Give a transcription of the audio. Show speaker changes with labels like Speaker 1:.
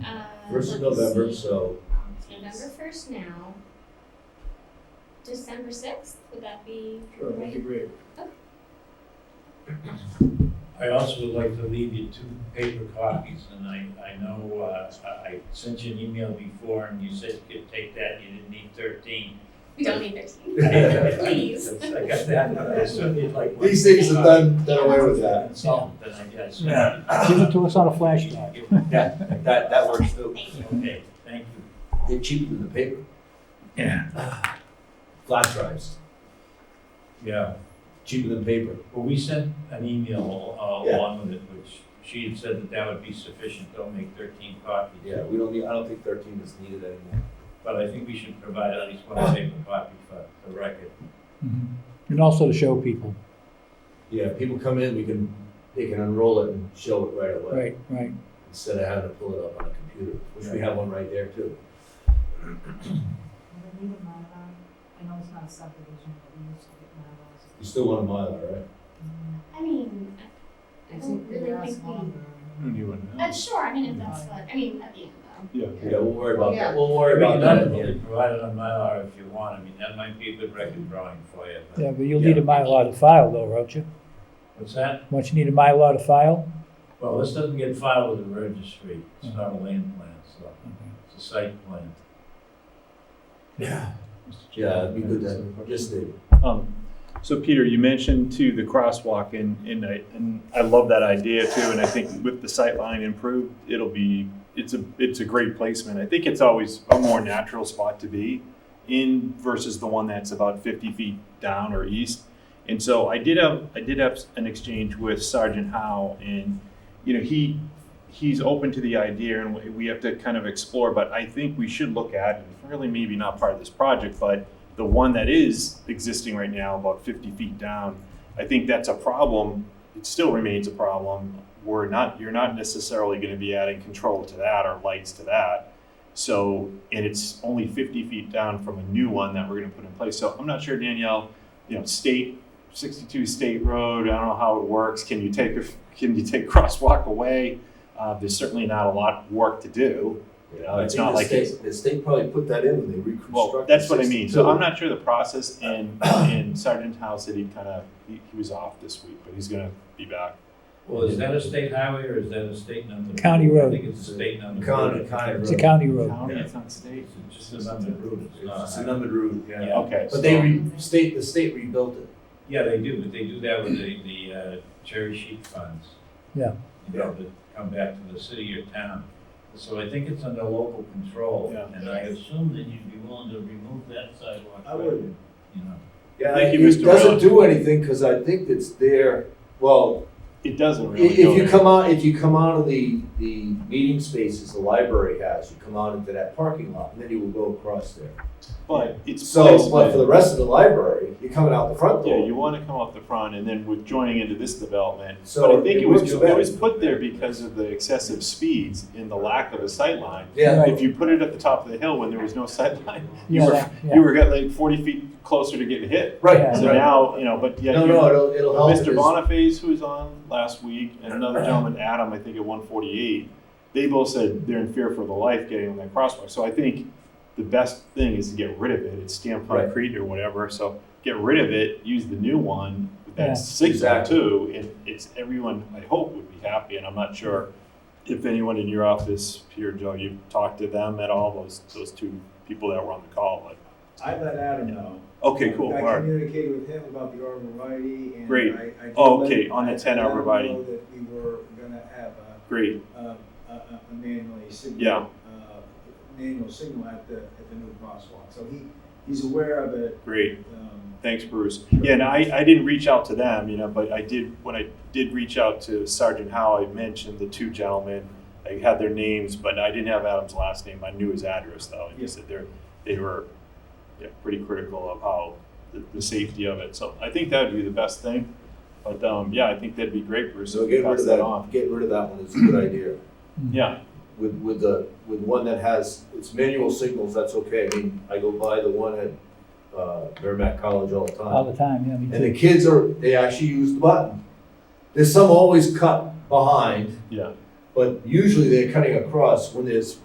Speaker 1: First of November, so
Speaker 2: It's Uh, November first now. December sixth, would that be
Speaker 3: Sure, that'd be
Speaker 2: right?
Speaker 3: great.
Speaker 4: I also would like to leave you two paper copies, and I, I know, uh, I I sent you an email before, and you said you could take that, you didn't need thirteen.
Speaker 2: We don't need thirteen. Please.
Speaker 4: I got that, but I certainly would like one.
Speaker 3: These things are done, done away with that.
Speaker 4: Consultant, I guess.
Speaker 5: Yeah. Give it to us on a flash drive.
Speaker 6: Yeah, that, that works too.
Speaker 2: Thank you.
Speaker 4: Okay, thank you.
Speaker 6: They're cheaper than the paper.
Speaker 4: Yeah.
Speaker 6: Flash drives,
Speaker 4: Yeah,
Speaker 6: cheaper than paper.
Speaker 4: well, we sent an email uh,
Speaker 6: Yeah.
Speaker 4: along with it, which she had said that that would be sufficient, don't make thirteen copies.
Speaker 6: Yeah, we don't need, I don't think thirteen is needed anymore.
Speaker 4: But I think we should provide at least one paper copy for the record.
Speaker 5: Mm-hmm. And also to show people.
Speaker 6: Yeah, people come in, we can, they can unroll it and show it right away.
Speaker 5: Right, right.
Speaker 6: Instead of having to pull it up on a computer, which we have one right there too.
Speaker 7: We need a Mylar. I know it's not a subdivision, but we used to get Mylars.
Speaker 6: You still want a Mylar, right?
Speaker 2: I mean, I- I don't
Speaker 7: They
Speaker 2: really
Speaker 7: last
Speaker 2: think we.
Speaker 7: longer.
Speaker 2: Uh, sure, I mean, if that's what, I mean, at the end though.
Speaker 6: Yeah, we'll worry about that, we'll
Speaker 4: We
Speaker 6: worry
Speaker 4: can
Speaker 6: about that. at the end.
Speaker 4: provide it on Mylar if you want, I mean, that might be a good record drawing for you, but.
Speaker 5: Yeah, but you'll need a Mylar to file though, won't you?
Speaker 4: What's that?
Speaker 5: Won't you need a Mylar to file?
Speaker 4: Well, this doesn't get filed with the registry, it's not a land plan, so, it's a site plan.
Speaker 5: Yeah.
Speaker 6: Yeah, it'd be good to, just the,
Speaker 8: Um, so Peter, you mentioned too the crosswalk and, and I, and I love that idea too. And I think with the sightline improved, it'll be, it's a, it's a great placement. I think it's always a more natural spot to be in versus the one that's about fifty feet down or east. And so I did have, I did have an exchange with Sergeant Howe and, you know, he, he's open to the idea and we- we have to kind of explore, but I think we should look at, and it's really maybe not part of this project, but the one that is existing right now, about 50 feet down, I think that's a problem. It still remains a problem. We're not, you're not necessarily going to be adding control to that or lights to that. So, and it's only 50 feet down from a new one that we're going to put in place. So I'm not sure, Danielle, you know, state, 62 State Road, I don't know how it works. Can you take, a- can you take crosswalk away? Uh, there's certainly not a lot of work to do.
Speaker 6: you know, I
Speaker 8: It's
Speaker 6: think
Speaker 8: not
Speaker 6: the
Speaker 8: like
Speaker 6: state, the state probably put that in when they reconstructed.
Speaker 8: Well, that's what I mean. So
Speaker 6: 62.
Speaker 8: I'm not sure the process and, and Sergeant Howe said he kind of, he, he was off this week, but he's gonna be back.
Speaker 4: Well, is that a state highway or is that a state number?
Speaker 5: County
Speaker 4: I
Speaker 5: road.
Speaker 4: think it's a state number.
Speaker 6: County, county road.
Speaker 5: It's a county road.
Speaker 8: County,
Speaker 4: it's
Speaker 8: not state.
Speaker 4: It's just a number route, it's not. a
Speaker 6: It's a numbered route,
Speaker 4: highway.
Speaker 6: Uh, yeah.
Speaker 4: Yeah.
Speaker 8: Okay,
Speaker 6: But they, re- state, the state rebuilt it.
Speaker 4: Yeah, they do, but they do that with the, the uh, cherry sheet funds.
Speaker 5: Yeah.
Speaker 4: You know, that come back to the city or town. So I think it's under local control,
Speaker 8: Yeah.
Speaker 4: and I assume that you'd be willing to remove that sidewalk.
Speaker 3: I would.
Speaker 4: You know,
Speaker 6: Yeah,
Speaker 8: Thank you,
Speaker 6: it
Speaker 8: Mr.
Speaker 6: doesn't
Speaker 8: Rowland.
Speaker 6: do anything, cause I think it's there, well,
Speaker 8: it doesn't
Speaker 6: i-
Speaker 8: really
Speaker 6: if
Speaker 8: go
Speaker 6: you
Speaker 8: there.
Speaker 6: come out, if you come out of the, the meeting spaces the library has, you come out into that parking lot, and then you will go across there.
Speaker 8: But it's
Speaker 6: So, but for
Speaker 8: placement.
Speaker 6: the rest of the library, you're coming out the front
Speaker 8: Yeah, you
Speaker 6: door.
Speaker 8: wanna come up the front and then with joining into this development.
Speaker 6: So
Speaker 8: But I think
Speaker 6: it
Speaker 8: it was,
Speaker 6: works
Speaker 8: it
Speaker 6: better.
Speaker 8: was put there because of the excessive speeds and the lack of a sight line.
Speaker 6: Yeah,
Speaker 5: Right.
Speaker 8: If you put it at the top of the hill when there was no sight line, you
Speaker 5: Yeah,
Speaker 8: were,
Speaker 5: that-
Speaker 8: you
Speaker 5: yeah.
Speaker 8: were getting like forty feet closer to getting hit.
Speaker 6: right,
Speaker 8: So
Speaker 6: right.
Speaker 8: now, you know, but yeah,
Speaker 6: No,
Speaker 8: you-
Speaker 6: no, it'll, it'll help.
Speaker 8: Mr.
Speaker 6: is-
Speaker 8: Boniface, who was on last week, and another gentleman, Adam, I think at one forty-eight, they both said they're in fear for their life getting on that crosswalk. So I think the best thing is to get rid of it. It's stamped
Speaker 6: Right.
Speaker 8: concrete or whatever, so get rid of it, use the new one
Speaker 5: Yeah.
Speaker 8: that's signal
Speaker 6: Exactly.
Speaker 8: too. And it's, everyone, I hope, would be happy, and I'm not sure if anyone in your office, Peter, Joe, you've talked to them at all, those, those two people that were on the call, like,
Speaker 3: I let Adam know.
Speaker 8: okay, cool, all
Speaker 3: I
Speaker 8: right.
Speaker 3: communicated with him about the arborvitae and
Speaker 8: Great.
Speaker 3: I- I did
Speaker 8: Oh,
Speaker 3: let-
Speaker 8: okay, on the
Speaker 3: I-
Speaker 8: 10
Speaker 3: I let him
Speaker 8: arborvitae.
Speaker 3: know That we were gonna have a,
Speaker 8: Great,
Speaker 3: a, a- a manually signal.
Speaker 8: Yeah.
Speaker 3: Uh, manual signal at the, at the new crosswalk, so he, he's aware of it,
Speaker 8: great.
Speaker 3: um,
Speaker 8: Thanks, Bruce. Yeah, and I, I didn't reach out to them, you know, but I did, when I did reach out to Sergeant Howe, I mentioned the two gentlemen. I had their names, but I didn't have Adam's last name. I knew his address though. And he
Speaker 3: Yeah.
Speaker 8: said they're, they were, yeah, pretty critical of how, the, the safety of it. So I think that'd be the best thing. But, um, yeah, I think that'd be great, Bruce.
Speaker 6: So
Speaker 8: if you
Speaker 6: get rid
Speaker 8: pass
Speaker 6: of that,
Speaker 8: on.
Speaker 6: get rid of that one, it's a good idea.
Speaker 8: Yeah,
Speaker 6: With, with the, with one that has, it's manual signals, that's okay. I mean, I go by the one at, uh, Merrimack College all the time.
Speaker 5: All the time, yeah, me
Speaker 6: And the
Speaker 5: too.
Speaker 6: kids are, they actually use the button. There's some always cut behind,
Speaker 8: yeah.
Speaker 6: but usually they're cutting across when there's